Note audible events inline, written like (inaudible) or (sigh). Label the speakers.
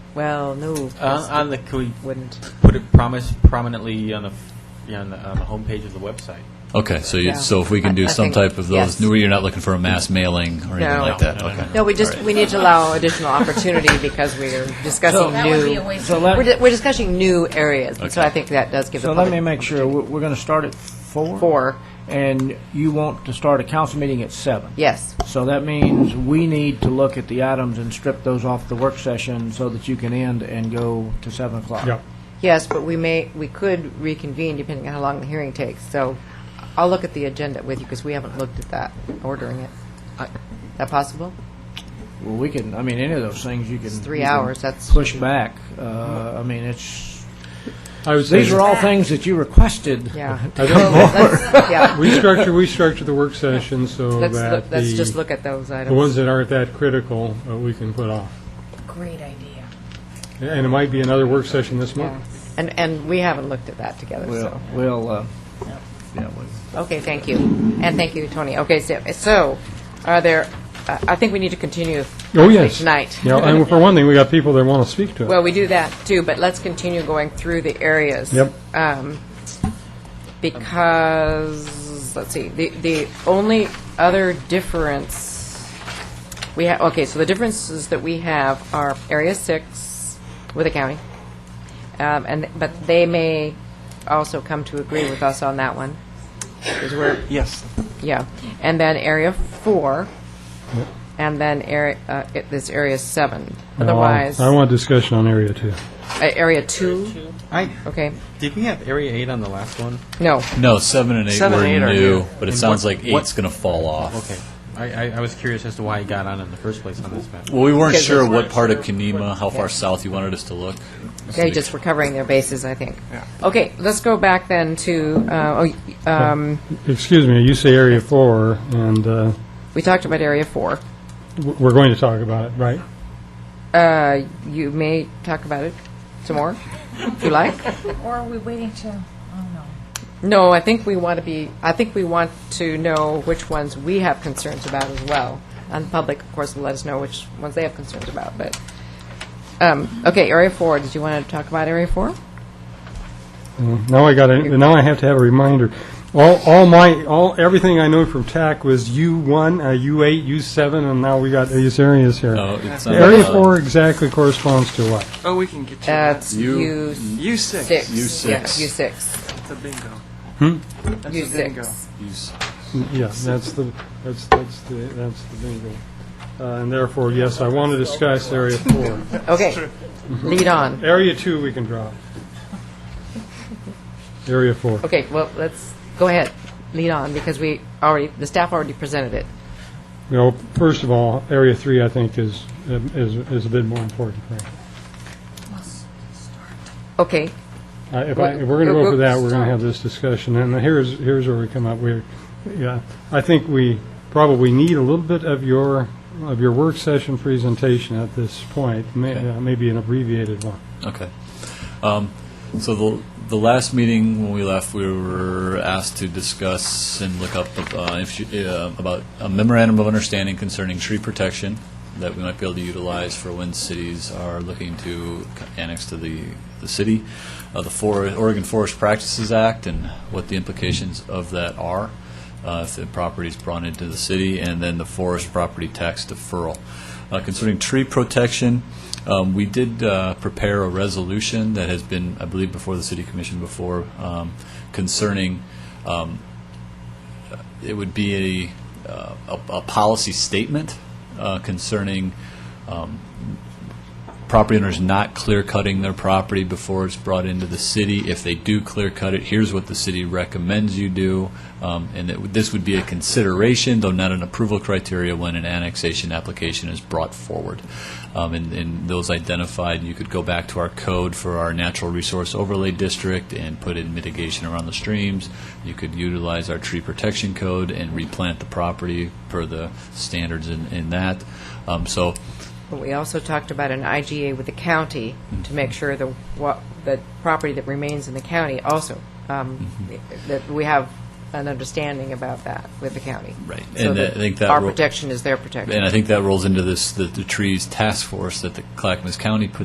Speaker 1: Well, no.
Speaker 2: Uh,
Speaker 1: because
Speaker 2: on the, can we
Speaker 1: Wouldn't.
Speaker 2: put it promise, prominently on the, f- yeah, on the, on the homepage of the website?
Speaker 3: Okay, so you,
Speaker 1: Yeah.
Speaker 3: so if we can
Speaker 1: I-
Speaker 3: do
Speaker 1: I
Speaker 3: some
Speaker 1: think-
Speaker 3: type of those,
Speaker 1: yes.
Speaker 3: no, you're not looking for a mass mailing or anything
Speaker 1: No.
Speaker 3: like that?
Speaker 2: No, no, no,
Speaker 3: Okay.
Speaker 1: No, we just,
Speaker 3: All right.
Speaker 1: we need to allow additional opportunity because
Speaker 4: (laughs)
Speaker 1: we're discussing
Speaker 4: That would be a
Speaker 1: new,
Speaker 4: waste
Speaker 5: So
Speaker 4: of
Speaker 1: we're
Speaker 5: let,
Speaker 1: di- we're discussing new areas, and so
Speaker 3: Okay.
Speaker 1: I think that does give the
Speaker 5: so let me
Speaker 1: public.
Speaker 5: make sure, we're, we're gonna start at four?
Speaker 1: Four.
Speaker 5: And you want to start a council meeting at seven?
Speaker 1: Yes,
Speaker 5: So that means we need to look at the items and strip those off the work session so that you can end and go to seven o'clock.
Speaker 6: Yeah.
Speaker 1: yes, but we may, we could reconvene depending on how long the hearing takes, so I'll look at the agenda with you because we haven't looked at that, ordering it. Is that possible?
Speaker 5: Well, we can, I mean, any of those things you can.
Speaker 1: three
Speaker 5: you can
Speaker 1: hours, that's-
Speaker 5: Push back, uh, I mean, it's,
Speaker 6: I would say, (laughs)
Speaker 5: these are all things that you requested.
Speaker 1: Yeah. (laughs)
Speaker 6: I think
Speaker 5: (laughs)
Speaker 1: Yeah,
Speaker 6: we structure, we structure the work session so
Speaker 1: let's, look-
Speaker 6: that
Speaker 1: let's just
Speaker 6: the,
Speaker 1: look at those
Speaker 6: the ones
Speaker 1: items.
Speaker 6: that aren't that critical, uh, we can put off.
Speaker 4: great idea.
Speaker 6: And it might be another work session this
Speaker 1: Yeah.
Speaker 6: month.
Speaker 1: And, and we haven't looked at that together, so.
Speaker 5: We'll, we'll, uh, yeah, we-
Speaker 1: Okay, thank you. And thank you, Tony. Okay, so, so are there, I I think we need to continue.
Speaker 6: Oh, yes.
Speaker 1: Tonight.
Speaker 6: Yeah, and for one thing, we got people that want to speak to it.
Speaker 1: Well, we do that too, but let's continue going through the areas.
Speaker 6: Yep.
Speaker 1: Um, Because, let's see, the, the only other difference we have, okay, so the differences that we have are Area 6 with the county, Um, and, but they may also come to agree with us on that one, because we're,
Speaker 2: Yes.
Speaker 1: yeah, and then Area 4, and then area, uh, it- this Area 7.
Speaker 6: No, I-
Speaker 1: Otherwise,
Speaker 6: I
Speaker 1: uh,
Speaker 6: want discussion on area two.
Speaker 1: Area 2,
Speaker 2: I,
Speaker 1: okay,
Speaker 2: did we have Area 8 on the last one?
Speaker 1: no,
Speaker 3: No, seven and eight
Speaker 2: Seven
Speaker 3: were
Speaker 2: and eight are
Speaker 3: new,
Speaker 2: new.
Speaker 3: but it
Speaker 2: And
Speaker 3: sounds
Speaker 2: what-
Speaker 3: like
Speaker 2: what-
Speaker 3: eight's going to fall off.
Speaker 2: Okay. I, I, I was curious as to why it got on in the first place on this map.
Speaker 3: Well, we weren't
Speaker 1: Because
Speaker 3: sure
Speaker 1: it's
Speaker 3: what part of Kenema, how far south you wanted us to look.
Speaker 1: they just were covering their bases, I think. Okay, let's go back then to, uh, oh, um,
Speaker 6: Excuse me, you say area four, and uh,
Speaker 1: we talked about Area 4.
Speaker 6: w- we're going to talk about it, right?
Speaker 1: Uh, You may talk about it some more, if you like.
Speaker 4: Or are we waiting to, oh, no.
Speaker 1: No, I think we want to be, I think we want to know which ones we have concerns about as well. And the public, of course, will let us know which ones they have concerns about, but, um, okay, Area 4, did you want to talk about Area 4?
Speaker 6: Now I got to, now I have to have a reminder. All, all my, all, everything I know from TAC was U1, uh, U8, U7, and now we got these areas here.
Speaker 3: No, it's not- uh,
Speaker 6: Area four exactly corresponds to what?
Speaker 7: Oh, we can get you. that.
Speaker 1: That's
Speaker 3: You-
Speaker 1: U6.
Speaker 7: U6.
Speaker 3: U6.
Speaker 1: Yeah, U6.
Speaker 7: That's a bingo. That's a bingo.
Speaker 1: U6.
Speaker 3: Use-
Speaker 6: Yeah, that's the, that's, that's the, that's the bingo. Uh, And therefore, yes, I want to discuss area four.
Speaker 1: Okay, lead on.
Speaker 6: Area two, we can drop. Area four.
Speaker 1: Okay, well, let's, go ahead, lead on, because we already, the staff already presented it.
Speaker 6: You know, first of all, area three, I think, is, is, is a bit more important, right?
Speaker 1: Okay,
Speaker 6: Uh, If I, if we're going to go for that, we're going to have this discussion, and here's, here's where we come up, we're, yeah, I think we probably need a little bit of your, of your work session presentation at this point, may- uh, maybe an abbreviated one.
Speaker 3: Okay. Um, So the, the last meeting, when we left, we were asked to discuss and look up uh, if you- uh, about a memorandum of understanding concerning tree protection that we might be able to utilize for when cities are looking to annex to the, the city, uh, the For- Oregon Forest Practices Act, and what the implications of that are uh, if the property is brought into the city, and then the forest property tax deferral. Uh, Concerning tree protection, um, we did uh, prepare a resolution that has been, I believe, before the city commission before, um, concerning, um, it would be a, uh, a, a policy statement uh, concerning um, property owners not clear cutting their property before it's brought into the city. If they do clear cut it, here's what the city recommends you do. Um, And it would- this would be a consideration, though not an approval criteria, when an annexation application is brought forward. Um, And, and those identified, you could go back to our code for our natural resource overlay district and put in mitigation around the streams. You could utilize our tree protection code and replant the property per the standards in, in that. Um, So
Speaker 1: But we also talked about an IGA with the county to make sure the, what, the property that remains in the county also, um,
Speaker 3: Mm-hmm.
Speaker 1: that we have an understanding about that with the county.
Speaker 3: Right.
Speaker 1: So
Speaker 3: And I think that
Speaker 1: Our
Speaker 3: will-
Speaker 1: protection is their protection.
Speaker 3: And I think that rolls into this, the, the trees task force that the Clackamas County put